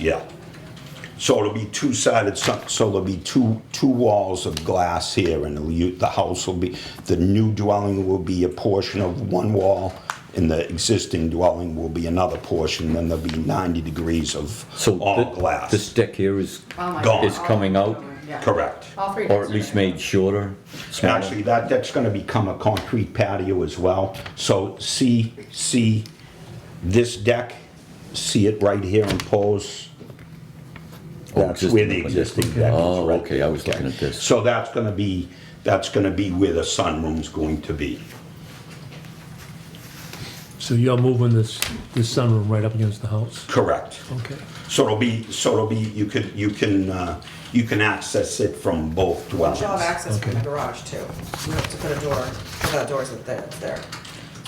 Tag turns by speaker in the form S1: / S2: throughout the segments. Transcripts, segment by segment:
S1: Yeah. So it'll be two-sided, so so there'll be two, two walls of glass here, and it'll u- the house will be, the new dwelling will be a portion of one wall, and the existing dwelling will be another portion, then there'll be 90 degrees of
S2: So
S1: all
S2: th-
S1: glass.
S2: This deck here is,
S3: Oh
S1: Gone.
S3: my God.
S1: It's
S2: coming out?
S3: Yeah.
S1: Correct.
S3: All three.
S2: or at least made shorter,
S1: Actually,
S2: smaller.
S1: that, that's gonna become a concrete patio as well. So see, see this deck, see it right here in pose?
S2: Oh,
S1: That's where the
S2: existing,
S1: existing deck is,
S2: Oh,
S1: right?
S2: okay, I was looking at this.
S1: So that's gonna be, that's gonna be where the sunroom's going to be.
S4: So you're moving this, this sunroom right up against the house?
S1: Correct.
S4: Okay.
S1: So it'll be, so it'll be, you could, you can, uh, you can access it from both dwellings.
S3: She'll have access from the
S4: Okay.
S3: garage too. You have to put a door, without doors up there, it's there.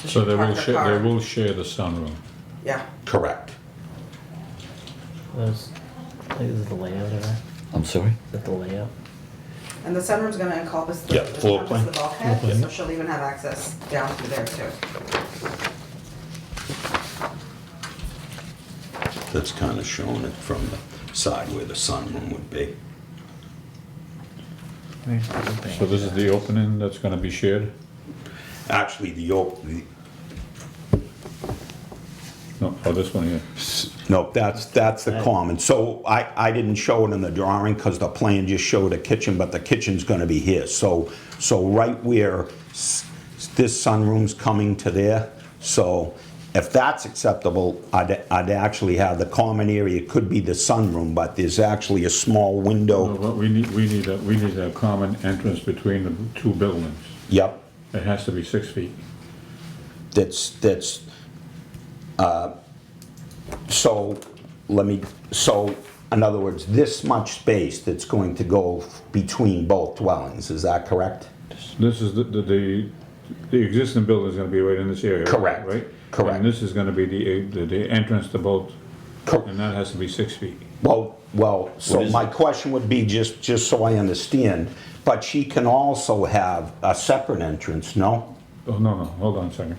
S5: So
S3: she
S5: they
S3: can
S5: will
S3: park her
S5: share,
S3: car.
S5: they will share the sunroom.
S3: Yeah,
S1: Correct.
S6: Those, I think this is the layout of that.
S2: I'm sorry?
S6: Is that the layout?
S3: and the sunroom's gonna encompass the,
S1: Yeah, floor
S3: encompass the
S1: plan.
S3: bulkhead, so she'll even have access down through there too.
S1: That's kinda showing it from the side where the sunroom would be.
S6: Where's the opening?
S5: So this is the opening that's gonna be shared?
S1: Actually, the, op- the,
S5: No, oh, this one here.
S1: No, that's, that's the common. So I, I didn't show it in the drawing because the plan just showed a kitchen, but the kitchen's gonna be here. So, so right where s- this sunroom's coming to there, so if that's acceptable, I'd, I'd actually have the common area, it could be the sunroom, but there's actually a small
S5: Well,
S1: window.
S5: what We need, we need, a we need a common entrance between the two buildings.
S1: Yep,
S5: It has to be six feet.
S1: that's, that's, uh, so, let me, so, in other words, this much space that's going to go between both dwellings, is that correct?
S5: This is the, the- the, the existing building is gonna be right in this area.
S1: Correct.
S5: Right?
S1: Correct.
S5: And this is gonna be the, the- the entrance to both,
S1: Cor-
S5: and that has to be six feet.
S1: Well, well, so
S2: What is
S1: my question would be, just, just so I understand, but she can also have a separate entrance, no?
S5: Oh, no, no, hold on a second.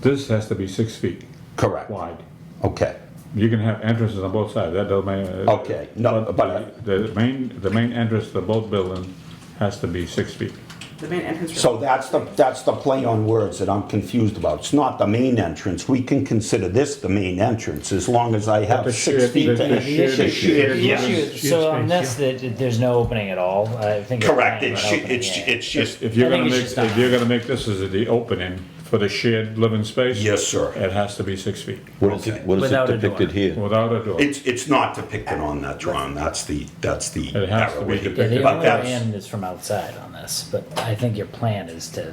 S5: This has to be six feet
S1: Correct.
S5: wide.
S1: Okay,
S5: You can have entrances on both sides, that doesn't matter.
S1: Okay, no, but- uh,
S5: The the main, the main entrance to both buildings has to be six feet.
S3: The main entrance.
S1: so that's the, that's the play on words that I'm confused about. It's not the main entrance, we can consider this the main entrance, as long as I have
S5: the
S1: six
S5: shared-
S1: feet
S5: the-
S1: to
S5: the shared-
S1: initiate.
S5: shared-
S6: The
S5: Yeah.
S6: issue, so on this, that that there's no opening at all, I think. it's
S1: Correct,
S6: not
S1: it's,
S6: an opening,
S1: it's,
S6: yeah.
S1: it's just,
S5: If you're
S6: I think
S5: gonna
S6: it
S5: make,
S6: should stop.
S5: if you're gonna make this as the opening for the shared living space.
S1: Yes, sir.
S5: It has to be six feet,
S2: What is
S1: Okay.
S2: it, what is it
S6: Without a
S2: depicted
S6: door.
S2: here?
S5: without a door.
S1: it's, it's not depicted on that drawing, that's the, that's the
S5: It has to
S1: arrow.
S5: be
S1: here.
S6: Yeah,
S5: depicted.
S6: the
S1: But
S6: only way
S1: that's,
S6: in is from outside on this, but I think your plan is to,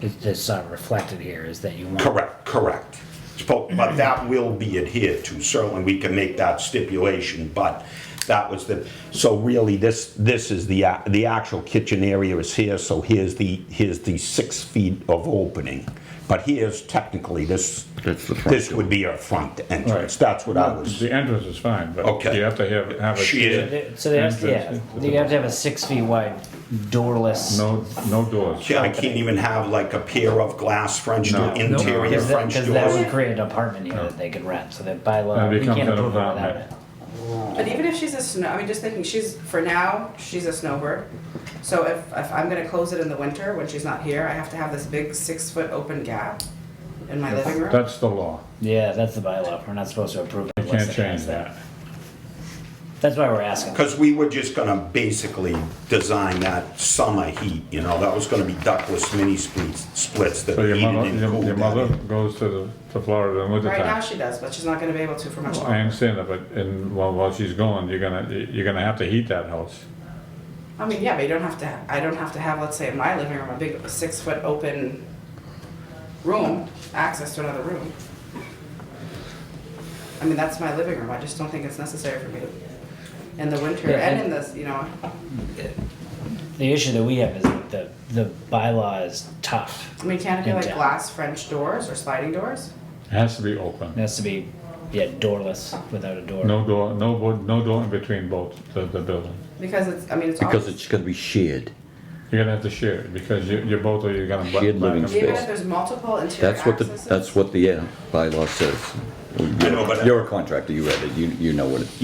S6: it's just not reflected here, is that you want.
S1: Correct, correct. Spo- But that will be adhered to, certainly we can make that stipulation, but that was the, so really, this, this is the, a- the actual kitchen area is here, so here's the, here's the six feet of opening. But here's technically, this,
S2: That's the front
S1: this would be our front entrance,
S5: Right.
S1: that's what I was,
S5: The entrance is fine, but
S1: Okay.
S5: you have to have, have a
S1: Shared.
S5: shared,
S6: They- So they have, yeah,
S5: Entrance into
S6: you
S5: the-
S6: have to have a six feet wide doorless.
S5: no, no doors.
S1: I can't even have like a pair of glass French,
S5: No.
S1: door- interior
S6: Because that,
S1: French
S6: because that would
S1: doors.
S6: create an apartment unit that they could rent, so that by law,
S5: That
S6: you
S5: becomes
S6: can't
S5: an
S6: approve it without
S5: apartment.
S6: it.
S3: But even if she's a snow, I mean, just thinking, she's, for now, she's a snowbird. So if, if I'm gonna close it in the winter when she's not here, I have to have this big six-foot open gap in my living room.
S5: That's the law,
S6: Yeah, that's the bylaw, we're not supposed to approve it
S5: you
S6: unless
S5: can't
S6: it
S5: change
S6: has
S5: that.
S6: that. That's why we're asking.
S1: Because we were just gonna basically design that summer heat, you know, that was gonna be ductless mini splits, splits that
S5: So your
S1: heated
S5: mother,
S1: and
S5: your
S1: cooled.
S5: your
S1: that
S5: mother
S1: in.
S5: goes to, the to Florida in winter
S3: Right now
S5: time.
S3: she does, but she's not gonna be able to for
S1: Oh,
S3: much
S5: I
S3: longer.
S5: understand that, but in, while, while she's gone, you're gonna, you're gonna have to heat that house.
S3: I mean, yeah, but you don't have to, I don't have to have, let's say, in my living room, a big six-foot open room, access to another room. I mean, that's my living room, I just don't think it's necessary for me to, in the winter,
S6: Yeah,
S3: and
S6: and-
S3: in this, you know,
S6: The issue that we have is that the, the bylaw is tough.
S3: I mean, can it be
S6: And
S3: like
S6: down.
S3: glass French doors or sliding doors?
S5: It has to be open.
S6: It has to be, yeah, doorless, without a door.
S5: No door, no, bo- no door in between both the, the buildings.
S3: Because it's, I mean, it's.
S2: Because
S3: all-
S2: it's gonna be shared.
S5: You're gonna have to share it because you, you're both are, you're gonna. butt-
S2: Shared living
S5: back and
S3: Even
S5: forth.
S3: if there's multiple interior
S2: That's what the,
S3: accesses.
S2: that's what the uh, bylaw says.
S1: I know, but-
S2: You're a contractor, you read it, you, you know what it